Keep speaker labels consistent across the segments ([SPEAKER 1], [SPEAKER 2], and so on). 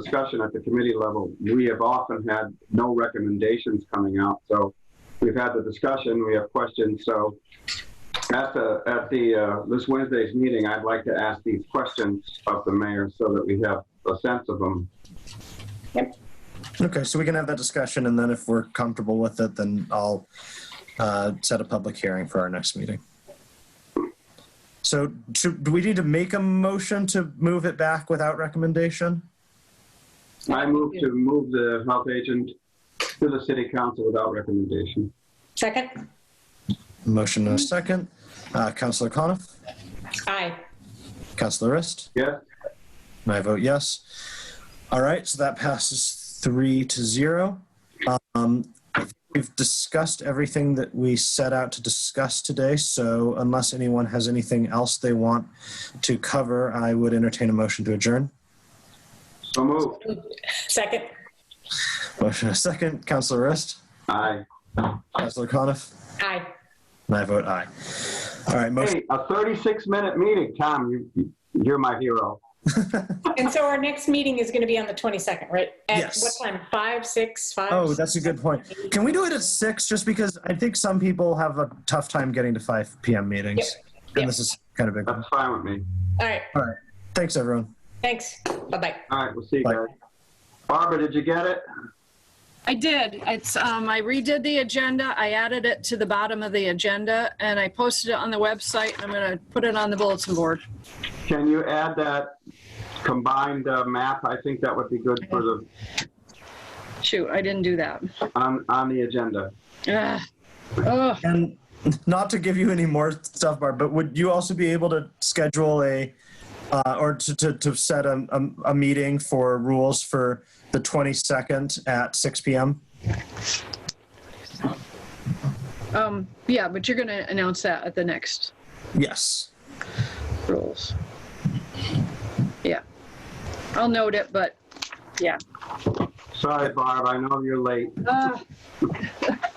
[SPEAKER 1] discussion at the committee level, we have often had no recommendations coming out. So we've had the discussion, we have questions. So at the, at the, uh, this Wednesday's meeting, I'd like to ask these questions of the mayor so that we have a sense of them.
[SPEAKER 2] Okay, so we can have that discussion, and then if we're comfortable with it, then I'll uh, set a public hearing for our next meeting. So, do, do we need to make a motion to move it back without recommendation?
[SPEAKER 1] I move to move the health agent to the city council without recommendation.
[SPEAKER 3] Second?
[SPEAKER 2] Motion and a second. Uh, Councillor Coniff,
[SPEAKER 3] Aye.
[SPEAKER 2] Councillor Rist,
[SPEAKER 1] Yes?
[SPEAKER 2] and I vote yes. All right, so that passes three to zero. Um, I think we've discussed everything that we set out to discuss today, so unless anyone has anything else they want to cover, I would entertain a motion to adjourn.
[SPEAKER 1] So moved.
[SPEAKER 3] Second?
[SPEAKER 2] Motion and a second. Councillor Rist,
[SPEAKER 1] Aye.
[SPEAKER 2] Councillor Coniff,
[SPEAKER 3] Aye.
[SPEAKER 2] and I vote aye. All right, motion.
[SPEAKER 1] Hey, a 36-minute meeting, Tom, you, you're my hero.
[SPEAKER 3] And so our next meeting is going to be on the 22nd, right? At
[SPEAKER 2] Yes.
[SPEAKER 3] what time? Five, six, five?
[SPEAKER 2] Oh, that's a good point. Can we do it at six? Just because I think some people have a tough time getting to five p.m. meetings,
[SPEAKER 3] yep.
[SPEAKER 2] and this is kind of big. One.
[SPEAKER 1] That's fine with me.
[SPEAKER 3] All right,
[SPEAKER 2] All right, thanks everyone.
[SPEAKER 3] thanks. Bye-bye.
[SPEAKER 1] All right, we'll see you
[SPEAKER 2] Bye.
[SPEAKER 1] guys. Barbara, did you get it?
[SPEAKER 4] I did. It's, um, I redid the agenda. I added it to the bottom of the agenda and I posted it on the website. and I'm going to put it on the bulletin board.
[SPEAKER 1] Can you add that combined uh, map? I think that would be good for the,
[SPEAKER 4] Shoot, I didn't do that.
[SPEAKER 1] on, on the agenda.
[SPEAKER 4] Ugh. Ugh.
[SPEAKER 2] And not to give you any more stuff, Barb, but would you also be able to schedule a uh, or to, to, to set a, a, a meeting for rules for the 22nd at 6 p.m.?
[SPEAKER 4] Um, yeah, but you're going to announce that at the next
[SPEAKER 2] Yes.
[SPEAKER 4] rules. Yeah. I'll note it, but yeah.
[SPEAKER 1] Sorry, Barb, I know you're late.
[SPEAKER 4] Ugh.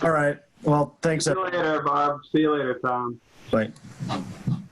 [SPEAKER 2] All right. Well, thanks.
[SPEAKER 1] See you
[SPEAKER 2] everyone.
[SPEAKER 1] later, Barb. See you later, Tom.
[SPEAKER 2] Bye.